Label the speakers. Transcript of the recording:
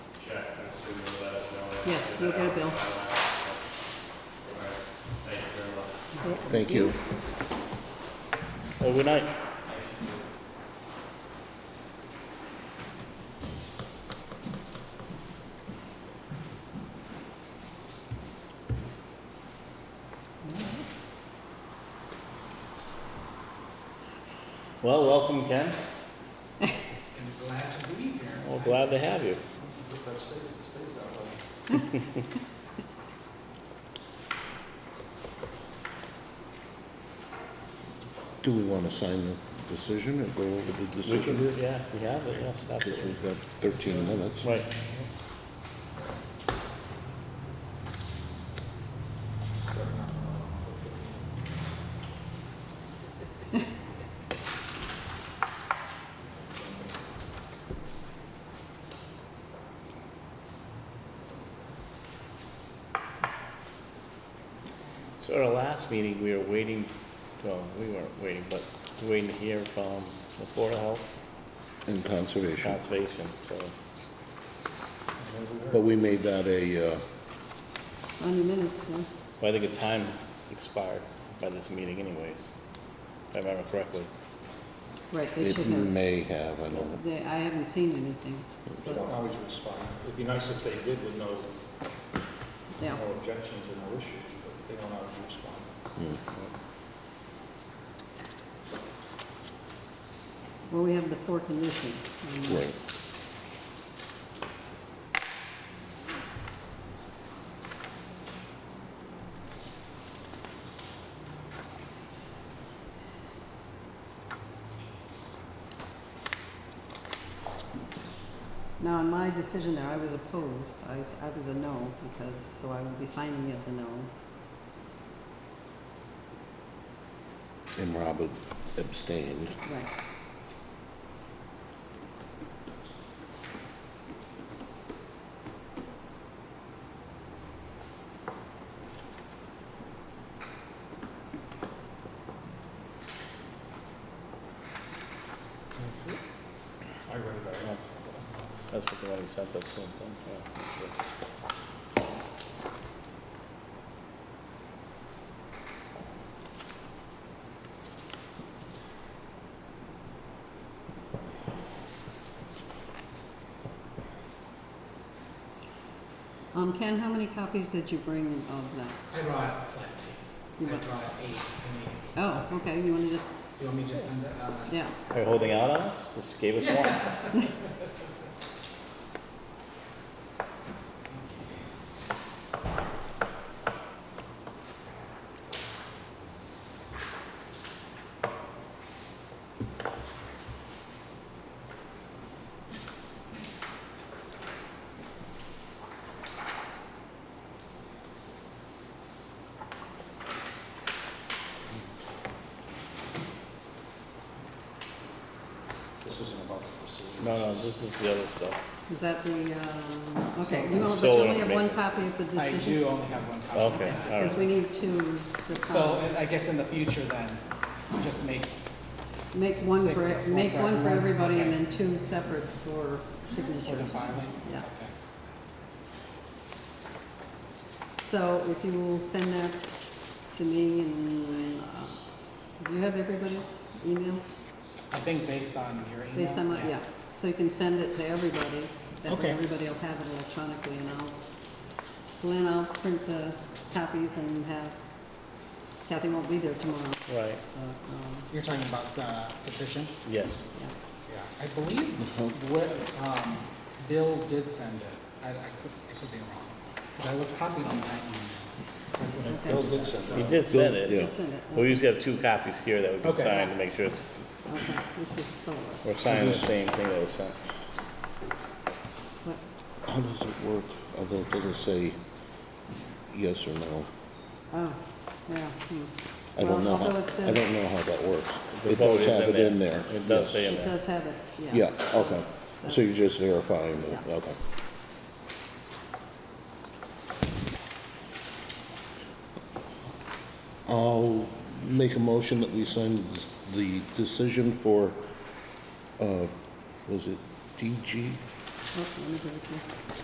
Speaker 1: Yes, you'll get a bill.
Speaker 2: Thank you very much.
Speaker 3: Thank you.
Speaker 4: Have a good night. Well, welcome, Ken.
Speaker 5: and glad to be here.
Speaker 4: Well, glad to have you.
Speaker 3: Do we want to sign the decision or go over the
Speaker 4: We can do
Speaker 3: decision?
Speaker 4: it, yeah, we have it, yes,
Speaker 3: Because
Speaker 4: absolutely.
Speaker 3: we've got 13 minutes.
Speaker 4: Right. So at our last meeting, we were waiting, well, we weren't waiting, but waiting to hear from the Board of Health
Speaker 3: In conservation.
Speaker 4: Conservation, so.
Speaker 3: But we made that a, uh,
Speaker 1: On your minutes, so.
Speaker 4: Well, I think the time expired by this meeting anyways, if I remember correctly.
Speaker 1: Right, they should
Speaker 3: it
Speaker 1: have.
Speaker 3: may have, I don't know.
Speaker 1: They, I haven't seen anything,
Speaker 5: They
Speaker 1: but,
Speaker 5: don't always respond. It'd be nice if they did with no,
Speaker 1: yeah.
Speaker 5: no objections or no issues, but they don't always respond.
Speaker 1: Well, we have the four conditions. Um, and
Speaker 3: Right.
Speaker 1: Now, in my decision there, I was opposed. I, s- I was a no because, so I would be signing as a no.
Speaker 3: And Robert abstained.
Speaker 1: Right.
Speaker 5: I read it, I
Speaker 4: Yeah. That's what the one he sent us, same thing, yeah. that's it.
Speaker 1: Um, Ken, how many copies did you bring of that?
Speaker 6: I brought plenty.
Speaker 1: You
Speaker 6: I
Speaker 1: brought-
Speaker 6: brought eight. I mean,
Speaker 1: Oh, okay, you wanna just,
Speaker 6: you want me to send it? Uh,
Speaker 1: yeah,
Speaker 4: Are you holding out on us? Just gave us one.
Speaker 5: This isn't about the decision.
Speaker 4: No, no, this is the other stuff.
Speaker 1: is that the, um, okay,
Speaker 4: So-
Speaker 1: you only, but you
Speaker 4: Solar
Speaker 1: only have one
Speaker 4: maker.
Speaker 1: copy of the
Speaker 6: I
Speaker 1: decision? Oh.
Speaker 6: do only have one copy. of
Speaker 4: Okay,
Speaker 6: that.
Speaker 4: all
Speaker 1: Cause we
Speaker 4: right.
Speaker 1: need two to
Speaker 6: So
Speaker 1: sign.
Speaker 6: and I guess in the future then, just make,
Speaker 1: Make one
Speaker 6: Six,
Speaker 1: for, e,
Speaker 6: one for
Speaker 1: make one for
Speaker 6: everyone,
Speaker 1: everybody and
Speaker 6: okay.
Speaker 1: then two separate for
Speaker 6: for the
Speaker 1: signatures.
Speaker 6: filing?
Speaker 1: Yeah.
Speaker 6: Okay.
Speaker 1: So if you will send that to me and, uh, do you have everybody's email?
Speaker 6: I think based on your email.
Speaker 1: Based on what, yeah,
Speaker 6: yes.
Speaker 1: so you can send it to everybody, that way
Speaker 6: Okay.
Speaker 1: everybody will have it electronically, and I'll, Glenn, I'll print the copies and have, Kathy won't be there tomorrow,
Speaker 4: Right,
Speaker 1: but, um,
Speaker 6: You're talking about the petition?
Speaker 4: yes.
Speaker 1: yeah.
Speaker 6: Yeah. I believe what, um, Bill did send it. I, I could, I could be wrong. 'Cause I was copied on that email.
Speaker 1: Okay.
Speaker 5: Bill did send
Speaker 4: He
Speaker 5: that.
Speaker 4: did send it.
Speaker 3: Yeah.
Speaker 1: That's in it,
Speaker 4: We usually have two copies here that we can
Speaker 6: Okay.
Speaker 4: sign to make sure it's,
Speaker 1: okay, this is solar,
Speaker 4: we're signing the same thing that was sent.
Speaker 1: what,
Speaker 3: How does it work? Although it doesn't say yes or no.
Speaker 1: oh, yeah, hmm.
Speaker 3: I don't
Speaker 1: Well,
Speaker 3: know. how-
Speaker 1: although it says-
Speaker 3: I don't know how that works.
Speaker 4: The
Speaker 3: It
Speaker 4: vote
Speaker 3: does
Speaker 4: is
Speaker 3: have it in there.
Speaker 4: It does
Speaker 3: yes.
Speaker 4: say in
Speaker 1: It
Speaker 4: there.
Speaker 1: does have it, yeah.
Speaker 3: Yeah, okay. So you're just verifying it,
Speaker 1: Yeah.
Speaker 3: okay. I'll make a motion that we sign this- the decision for, uh, was it DG?
Speaker 1: Oh, let me give it to you.